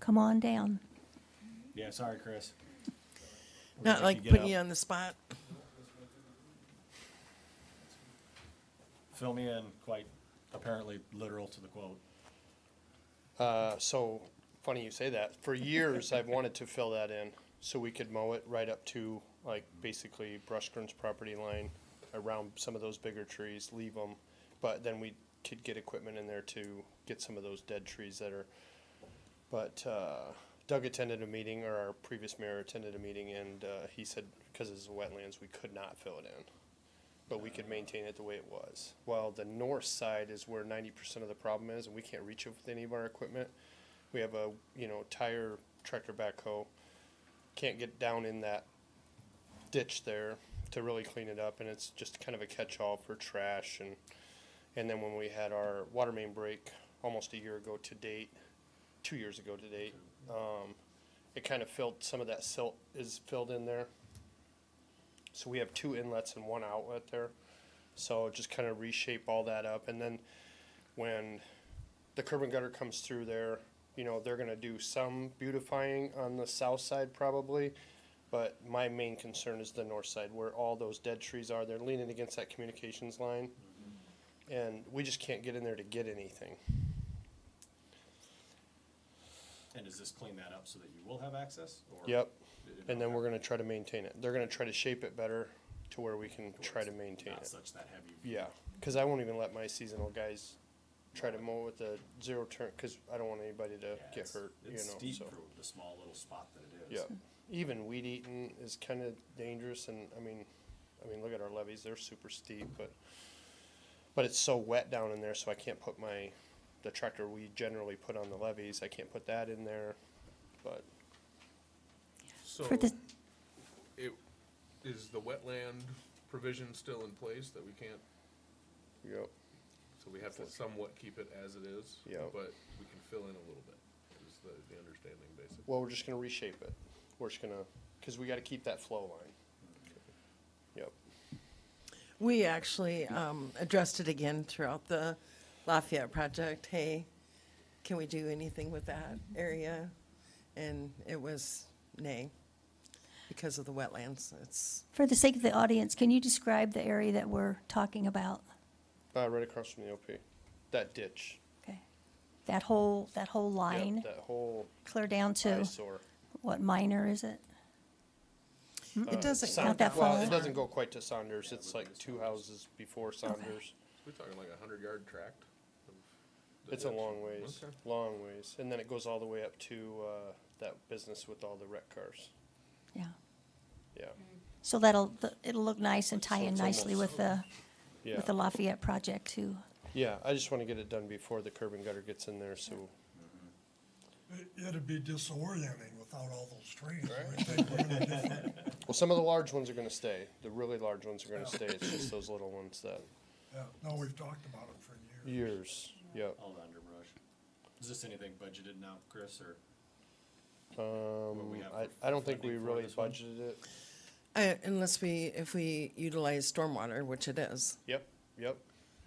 come on down. Yeah, sorry, Chris. We're Not gonna make like get putting up. you on the spot. Fill me in, quite apparently literal to the quote. Uh, so, funny you say that. For years, I've wanted to fill that in so we could mow it right up to like basically Brushgren's property line around some of those bigger trees, leave them. But then we could get equipment in there to get some of those dead trees that are. But uh, Doug attended a meeting, or our previous mayor attended a meeting, and uh, he said because it's wetlands, we could not fill it in but we could maintain it the way it was. While the north side is where ninety percent of the problem is, and we can't reach it with any of our equipment. We have a, you know, tire tractor backhoe, can't get down in that ditch there to really clean it up, and it's just kind of a catch-all for trash and, and then when we had our water main break almost a year ago to date, two years ago to date, um, it kind of filled, some of that silt is filled in there. So we have two inlets and one outlet there. So just kind of reshape all that up. And then when the curb and gutter comes through there, you know, they're gonna do some beautifying on the south side probably. But my main concern is the north side where all those dead trees are. They're leaning against that communications line. And we just can't get in there to get anything. And does this clean that up so that you will have access? Or Yep. it- it And then don't we're gonna try to maintain it. They're gonna try to shape it better to where we can have- try to maintain Not it. such that heavy. Yeah, because I won't even let my seasonal guys try to mow with the zero turn because I don't want anybody to Yeah, get it's- hurt. You know, It's steep so for the small little spot that it is. yeah, even weed eating is kind of dangerous, and I mean, I mean, look at our levees; they're super steep, but but it's so wet down in there, so I can't put my the tractor we generally put on the levees. I can't put that in there, but So, For the, it, is the wetland provision still in place that we can't, you know, so we have to somewhat keep it as it is? Yeah. But we can fill in a little bit, is the, the understanding basically. well, we're just gonna reshape it. We're just gonna because we got to keep that flow line. Yep. We actually um, addressed it again throughout the Lafayette project. Hey, can we do anything with that area? And it was nay because of the wetlands. It's for the sake of the audience, can you describe the area that we're talking about? Uh, right across from the OP, that ditch. Okay. That whole, that whole Yep, line, That whole clear down to, eyesore. what minor is it? it doesn't Not go that that far. Well, far. it doesn't go quite to Saunders, it's like two houses before Saunders. We're talking like a hundred yard tract? of the It's a ditch? long ways, Okay. long ways, and then it goes all the way up to, uh, that business with all the wreck cars, Yeah. yeah, So that'll, th- it'll look nice and tie So in it's nicely with the, yeah. with the Lafayette project uh, too. Yeah, I just wanna get it done before the curb and gutter gets in there, so, It- It'd be disorienting without all those trees. I would think we're in a different- well, some of the large ones are gonna stay, the really large ones are gonna stay, it's just those little ones that, yeah, No, we've talked about it for years. years, yep. All the underbrush. Is this anything budgeted now, Chris, or? Um, we have I, for I don't think we funding for really this one? budgeted it, Uh, Unless we, if we utilize stormwater, which it is. yep, yep,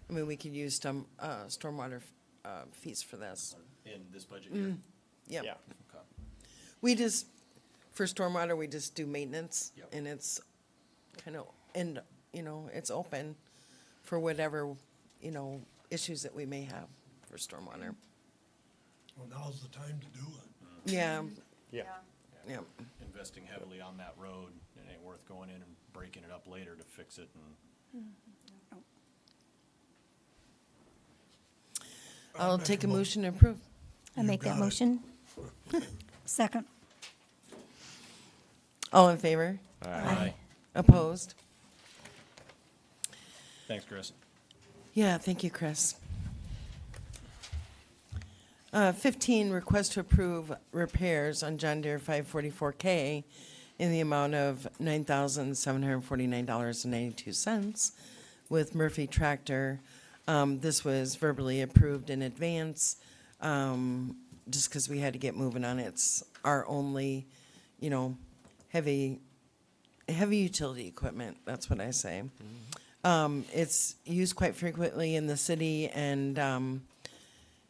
I mean, we could use storm, uh, stormwater uh, fees for this. In this budget year? Yep. yeah, Okay. We just, for stormwater, we just do maintenance, Yep. and it's kind of, and, you know, it's open for whatever, you know, issues that we may have for stormwater. Well, now's the time to do it. Yeah, yeah, yeah, Investing heavily on that road, it ain't worth going in and breaking it up later to fix it and I'll make take a a mo- motion to approve. I You make that got it. motion? Second. All in favor? Opposed? Thanks, Chris. Yeah, thank you, Chris. Uh, 15, request to approve repairs on John Deere 544K in the amount of $9,749.92 with Murphy Tractor. Um, This was verbally approved in advance, um, just because we had to get moving on it. It's our only, you know, heavy, heavy utility equipment, that's what I say. Um, it's used quite frequently in the city and, um,